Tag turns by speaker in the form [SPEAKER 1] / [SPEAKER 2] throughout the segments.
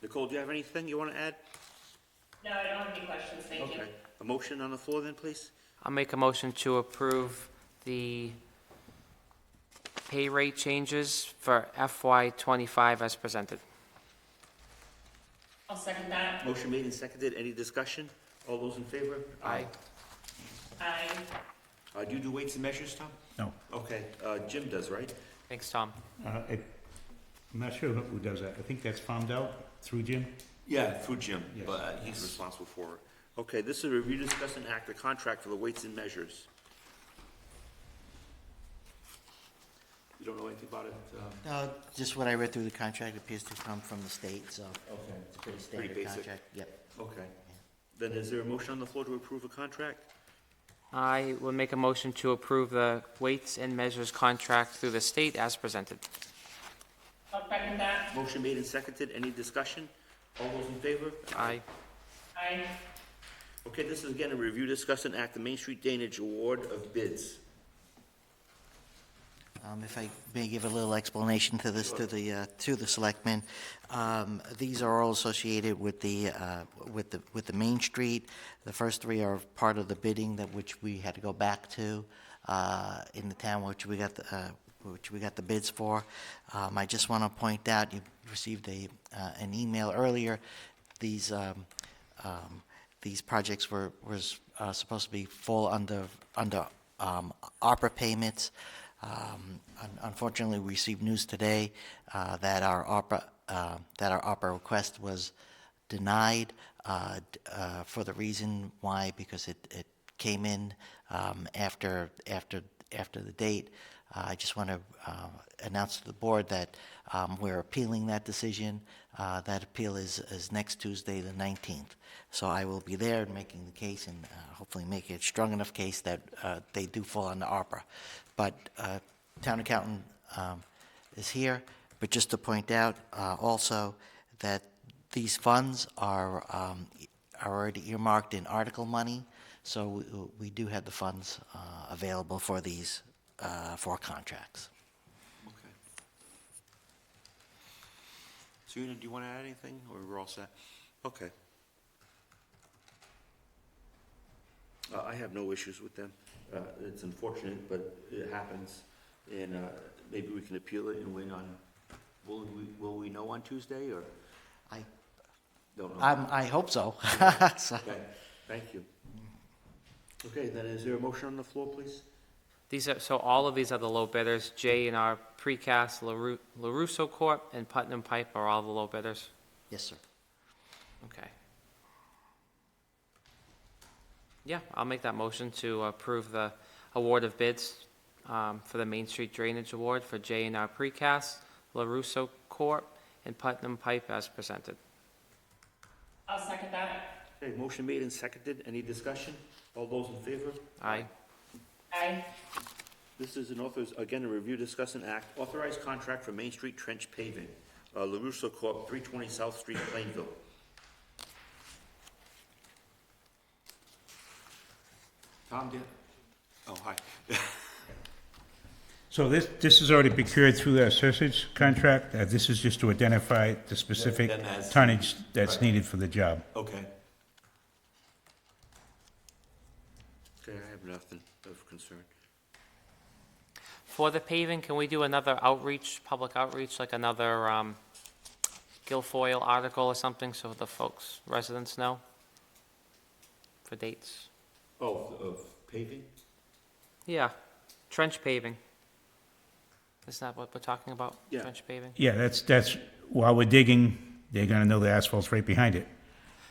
[SPEAKER 1] Nicole, do you have anything you want to add?
[SPEAKER 2] No, I don't have any questions, thank you.
[SPEAKER 1] Okay. A motion on the floor then, please?
[SPEAKER 3] I'll make a motion to approve the pay rate changes for FY twenty-five as presented.
[SPEAKER 2] I'll second that.
[SPEAKER 1] Motion made and seconded. Any discussion? All those in favor?
[SPEAKER 3] Aye.
[SPEAKER 2] I,
[SPEAKER 1] Uh, do you do weights and measures, Tom?
[SPEAKER 4] No,
[SPEAKER 1] Okay, uh, Jim does, right?
[SPEAKER 3] Thanks, Tom.
[SPEAKER 4] uh, it, I'm not sure who does that. I think that's farmed out through Jim.
[SPEAKER 1] Yeah, through Jim,
[SPEAKER 4] Yes.
[SPEAKER 1] but uh, he's responsible for it. Okay, this is a review, discuss, and act the contract for the weights and measures. You don't know anything about it? um,
[SPEAKER 5] No, just what I read through the contract appears to come from the state, so
[SPEAKER 1] Okay.
[SPEAKER 5] it's a pretty
[SPEAKER 1] Pretty
[SPEAKER 5] standard
[SPEAKER 1] basic.
[SPEAKER 5] contract. Yep.
[SPEAKER 1] Okay. Then is there a motion on the floor to approve a contract?
[SPEAKER 3] I will make a motion to approve the weights and measures contract through the state as presented.
[SPEAKER 2] I'll second that.
[SPEAKER 1] Motion made and seconded. Any discussion? All those in favor?
[SPEAKER 3] Aye.
[SPEAKER 2] I,
[SPEAKER 1] Okay, this is again a review, discuss, and act the Main Street Drainage Award of Bids.
[SPEAKER 5] Um, If I may give a little explanation to this, to the, uh, to the selectmen. Um, These are all associated with the, uh, with the, with the Main Street. The first three are part of the bidding that which we had to go back to uh, in the town, which we got, the, uh, which we got the bids for. Um, I just want to point out, you received a, uh, an email earlier, these, um, um, these projects were, was uh, supposed to be full under, under um, ARPA payments. Um, un- Unfortunately, we received news today uh, that our ARPA, uh, that our ARPA request was denied uh, d- uh, for the reason why, because it, it came in um, after, after, after the date. Uh, I just want to uh, announce to the board that um, we're appealing that decision. Uh, that appeal is, is next Tuesday, the 19th. So I will be there and making the case and uh, hopefully make it a strong enough case that uh, they do fall under ARPA. But uh, town accountant um, is here. But just to point out uh, also that these funds are, um, are already earmarked in article money, so we, we do have the funds uh, available for these, uh, for contracts.
[SPEAKER 1] Okay. Serena, do you want to add anything, or we're all set? Okay. Uh, I have no issues with them. Uh, It's unfortunate, but it happens, and uh, maybe we can appeal it and win on, will we, will we know on Tuesday, or?
[SPEAKER 5] I,
[SPEAKER 1] Don't know.
[SPEAKER 5] I'm, I hope so. So-
[SPEAKER 1] Okay, thank you. Okay, then is there a motion on the floor, please?
[SPEAKER 3] These are, so all of these are the low bidders. J and R Precast, LaRu- LaRusso Corp., and Putnam Pipe are all the low bidders.
[SPEAKER 5] Yes, sir.
[SPEAKER 3] Okay. Yeah, I'll make that motion to approve the award of bids um, for the Main Street Drainage Award for J and R Precast, LaRusso Corp., and Putnam Pipe as presented.
[SPEAKER 2] I'll second that.
[SPEAKER 1] Okay, motion made and seconded. Any discussion? All those in favor?
[SPEAKER 3] Aye.
[SPEAKER 2] I,
[SPEAKER 1] This is an authors, again, a review, discuss, and act, authorized contract for Main Street trench paving, uh, LaRusso Corp., 320 South Street, Plainville. Tom, do you- Oh, hi.
[SPEAKER 4] So this, this has already been cured through the assessors contract. Uh, this is just to identify the specific
[SPEAKER 1] Then as-
[SPEAKER 4] tonnage that's
[SPEAKER 1] Right.
[SPEAKER 4] needed for the job.
[SPEAKER 1] Okay. Okay, I have nothing of concern.
[SPEAKER 3] For the paving, can we do another outreach, public outreach, like another um, Guilfoyle article or something, so the folks, residents know? For dates?
[SPEAKER 1] Oh, of paving?
[SPEAKER 3] Yeah, trench paving. Isn't that what we're talking about?
[SPEAKER 1] Yeah.
[SPEAKER 3] Trench paving?
[SPEAKER 4] Yeah, that's, that's, while we're digging, they're gonna know the asphalt's right behind it.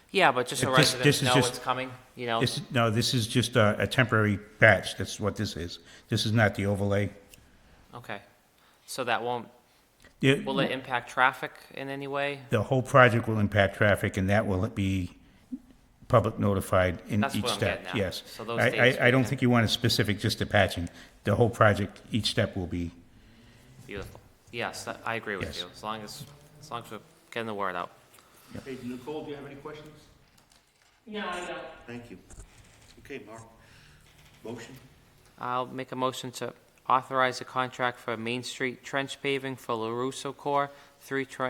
[SPEAKER 3] Yeah, but just so
[SPEAKER 4] If this- this
[SPEAKER 3] residents
[SPEAKER 4] is
[SPEAKER 3] know it's
[SPEAKER 4] just-
[SPEAKER 3] coming, you know?
[SPEAKER 4] This, no, this is just a, a temporary patch. That's what this is. This is not the overlay.
[SPEAKER 3] Okay. So that won't,
[SPEAKER 4] The-
[SPEAKER 3] will it impact traffic in any way?
[SPEAKER 4] The whole project will impact traffic, and that will be public notified in
[SPEAKER 3] That's what
[SPEAKER 4] each
[SPEAKER 3] I'm
[SPEAKER 4] step,
[SPEAKER 3] getting at.
[SPEAKER 4] yes.
[SPEAKER 3] So those
[SPEAKER 4] I,
[SPEAKER 3] dates
[SPEAKER 4] I, I
[SPEAKER 3] we
[SPEAKER 4] don't
[SPEAKER 3] can-
[SPEAKER 4] think you want it specific just to patching. The whole project, each step will be,
[SPEAKER 3] Beautiful. Yes, that- I agree with
[SPEAKER 4] Yes.
[SPEAKER 3] you, as long as, as long as we're getting the word out.
[SPEAKER 1] Hey, Nicole, do you have any questions?
[SPEAKER 2] no, I don't.
[SPEAKER 1] Thank you. Okay, Mark. Motion?
[SPEAKER 3] I'll make a motion to authorize a contract for Main Street trench paving for LaRusso Corp., 320